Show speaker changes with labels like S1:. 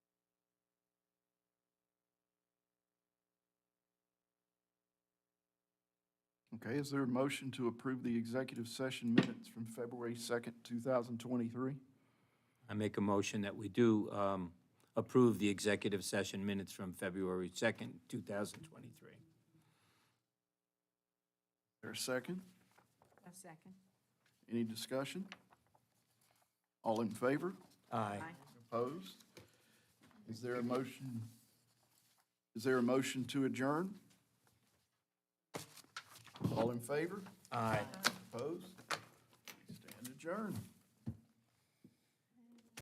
S1: Okay, is there a motion to approve the executive session minutes from February 2nd, 2023?
S2: I make a motion that we do um, approve the executive session minutes from February 2nd, 2023.
S1: There a second?
S3: A second.
S1: Any discussion? All in favor?
S2: Aye.
S1: Opposed? Is there a motion, is there a motion to adjourn? All in favor?
S2: Aye.
S1: Opposed? Stand adjourned.